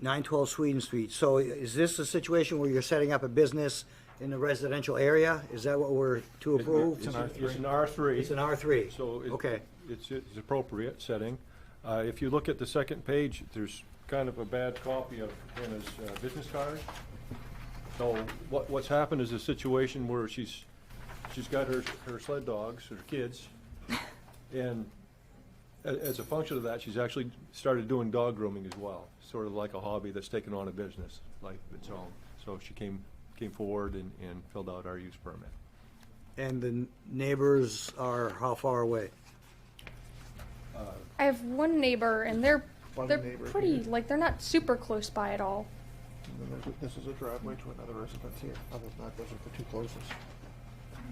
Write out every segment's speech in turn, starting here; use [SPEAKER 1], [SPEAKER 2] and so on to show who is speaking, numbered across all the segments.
[SPEAKER 1] 912 Sweden Street. So is this a situation where you're setting up a business in the residential area? Is that what we're to approve?
[SPEAKER 2] It's it's an R three.
[SPEAKER 1] It's an R3?
[SPEAKER 2] So it-
[SPEAKER 1] Okay.
[SPEAKER 2] It's, it's appropriate setting. Uh, if you look at the second page, there's kind of a bad copy of Hannah's uh, business card. So what, what's happened is a situation where she's, she's got her, her sled dogs, her kids, and a- as a function of that, she's actually started doing dog grooming as well, sort of like a hobby that's taken on a business like its own. So she came, came forward and, and filled out our use permit.
[SPEAKER 1] And the neighbors are how far away?
[SPEAKER 3] I have one neighbor, and they're
[SPEAKER 4] One
[SPEAKER 3] they're
[SPEAKER 4] neighbor
[SPEAKER 3] pretty
[SPEAKER 4] here.
[SPEAKER 3] like they're not super close by at all.
[SPEAKER 4] And then there's a- This is a driveway to another residence here. Other than that, those are the two closest.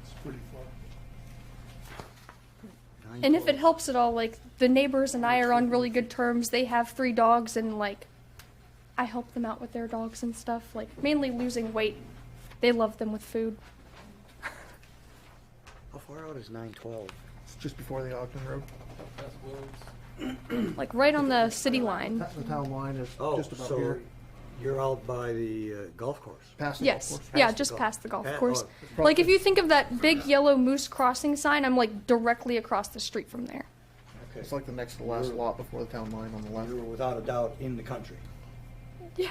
[SPEAKER 4] It's pretty far.
[SPEAKER 3] And if it helps at all, like the neighbors and I are on really good terms. They have three dogs, and like I help them out with their dogs and stuff. Like mainly losing weight. They love them with food.
[SPEAKER 1] How far out is 912?
[SPEAKER 4] It's just before the Ogden Road.
[SPEAKER 3] Like right on the city line.
[SPEAKER 4] That's the town line is
[SPEAKER 1] Oh,
[SPEAKER 4] just about
[SPEAKER 1] so
[SPEAKER 4] here.
[SPEAKER 1] you're out by the uh, golf course?
[SPEAKER 4] Past the golf
[SPEAKER 3] Yes.
[SPEAKER 4] course.
[SPEAKER 3] Yeah,
[SPEAKER 1] Past the
[SPEAKER 3] just
[SPEAKER 1] golf-
[SPEAKER 3] past the golf
[SPEAKER 1] pa-
[SPEAKER 3] course.
[SPEAKER 1] oh,
[SPEAKER 4] probably-
[SPEAKER 3] Like if you think of that big yellow moose crossing sign, I'm like directly across the street from there.
[SPEAKER 4] It's like the next to last lot before the town line on the left.
[SPEAKER 1] You were without a doubt in the country.
[SPEAKER 3] Yeah.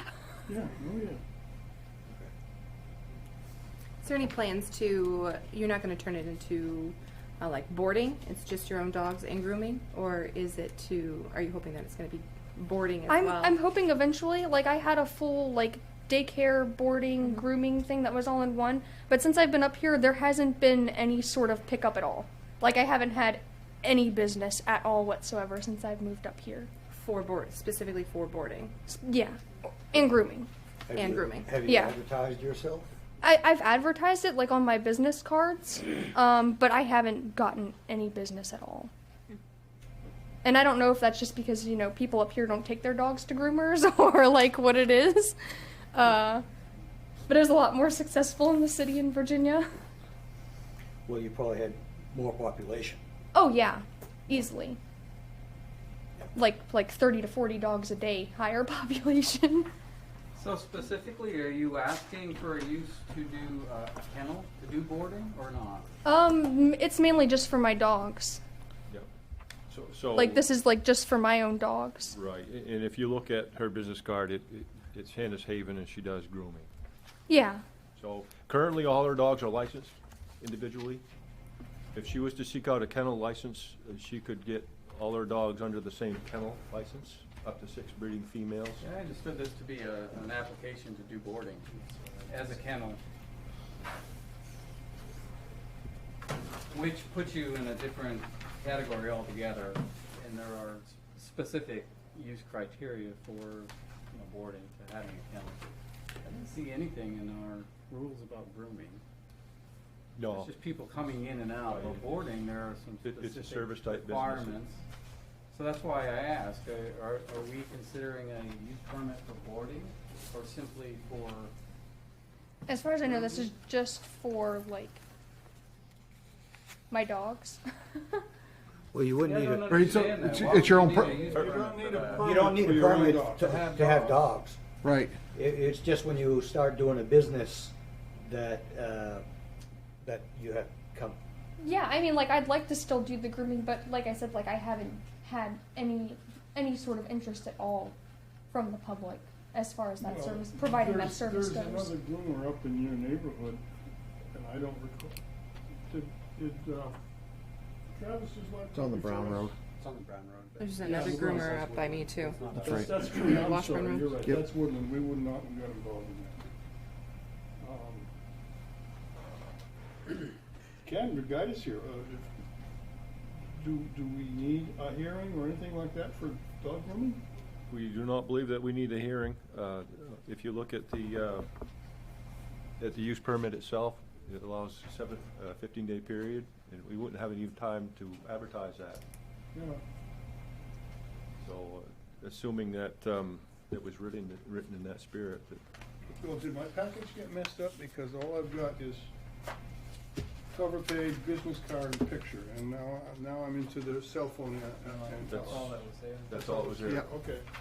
[SPEAKER 5] Is there any plans to, you're not gonna turn it into, uh, like boarding, it's just your own dogs and grooming? Or is it to, are you hoping that it's gonna be boarding as
[SPEAKER 3] I'm
[SPEAKER 5] well?
[SPEAKER 3] I'm hoping eventually. Like I had a full like daycare, boarding, grooming thing that was all in one. But since I've been up here, there hasn't been any sort of pickup at all. Like I haven't had any business at all whatsoever since I've moved up here.
[SPEAKER 5] For board, specifically for boarding?
[SPEAKER 3] S- Yeah, and grooming.
[SPEAKER 1] Have
[SPEAKER 5] And
[SPEAKER 1] you-
[SPEAKER 5] grooming.
[SPEAKER 1] Have you
[SPEAKER 3] Yeah.
[SPEAKER 1] advertised yourself?
[SPEAKER 3] I, I've advertised it like on my business cards, um, but I haven't gotten any business at all. And I don't know if that's just because you know people up here don't take their dogs to groomers or like what it is, uh, but it was a lot more successful in the city in Virginia.
[SPEAKER 1] Well, you probably had more population.
[SPEAKER 3] Oh yeah, easily. Like like thirty to forty dogs a day, higher population.
[SPEAKER 6] So specifically, are you asking for a use to do uh, a kennel, to do boarding or not?
[SPEAKER 3] um, it's mainly just for my dogs.
[SPEAKER 2] Yep. So, so.
[SPEAKER 3] Like this is like just for my own dogs.
[SPEAKER 2] Right, a- and if you look at her business card, it, it- it's Hannah's Haven and she does grooming.
[SPEAKER 3] Yeah.
[SPEAKER 2] So currently, all her dogs are licensed individually. If she was to seek out a kennel license, uh, she could get all her dogs under the same kennel license, up to six breeding females.
[SPEAKER 6] Yeah, I understood this to be a, an application to do boarding as a kennel. Which puts you in a different category altogether, and there are specific use criteria for, you know, boarding to having a kennel. I didn't see anything in our rules about grooming.
[SPEAKER 2] No,
[SPEAKER 6] It's just people coming in and out, but boarding, there are some
[SPEAKER 2] It- it's a service type
[SPEAKER 6] specific
[SPEAKER 2] business.
[SPEAKER 6] requirements. So that's why I ask, uh, are, are we considering a use permit for boarding or simply for,
[SPEAKER 3] As far as I know, this is just for like my dogs.
[SPEAKER 1] Well, you
[SPEAKER 6] Yeah,
[SPEAKER 1] wouldn't
[SPEAKER 6] I
[SPEAKER 1] need
[SPEAKER 6] don't
[SPEAKER 1] a,
[SPEAKER 4] Right, so
[SPEAKER 6] understand that.
[SPEAKER 4] it's-
[SPEAKER 6] Why
[SPEAKER 4] it's your own
[SPEAKER 6] would you
[SPEAKER 4] per-
[SPEAKER 6] need a use
[SPEAKER 2] You
[SPEAKER 6] permit
[SPEAKER 2] don't
[SPEAKER 6] for
[SPEAKER 2] need a
[SPEAKER 6] that?
[SPEAKER 1] you don't need
[SPEAKER 2] For
[SPEAKER 1] a
[SPEAKER 2] your own
[SPEAKER 1] permit
[SPEAKER 2] dog.
[SPEAKER 1] to to have dogs.
[SPEAKER 4] Right.
[SPEAKER 1] It, it's just when you start doing a business that, uh, that you have come,
[SPEAKER 3] yeah, I mean, like I'd like to still do the grooming, but like I said, like I haven't had any any sort of interest at all from the public as far as that
[SPEAKER 7] Well,
[SPEAKER 3] service, providing that
[SPEAKER 7] there's-
[SPEAKER 3] service
[SPEAKER 7] There's
[SPEAKER 3] goes.
[SPEAKER 7] another groomer up in your neighborhood, and I don't recall, did, did, uh, Travis's wife?
[SPEAKER 4] It's on the Brown Road.
[SPEAKER 6] It's on the Brown Road. but-
[SPEAKER 5] There's another groomer up by me too.
[SPEAKER 4] That's right.
[SPEAKER 7] That's true, I'm
[SPEAKER 5] Washburn
[SPEAKER 7] sorry,
[SPEAKER 5] Road.
[SPEAKER 7] you're right,
[SPEAKER 4] Yep.
[SPEAKER 7] that's Woodland, we would not have got involved in that. Um, Ken, your guide is here, uh, if- do, do we need a hearing or anything like that for dog grooming?
[SPEAKER 2] we do not believe that we need a hearing. Uh, If you look at the, uh, at the use permit itself, it allows seven, uh, fifteen-day period, and we wouldn't have any time to advertise that.
[SPEAKER 7] Yeah,
[SPEAKER 2] So, uh, assuming that, um, that was written, written in that spirit, that
[SPEAKER 7] Well, did my package get messed up? Because all I've got is cover page, business card, and picture, and now, now I'm into the cell phone uh, and, and.
[SPEAKER 2] That's-
[SPEAKER 6] All that was there.
[SPEAKER 2] that's all that was there.
[SPEAKER 7] Yeah, okay.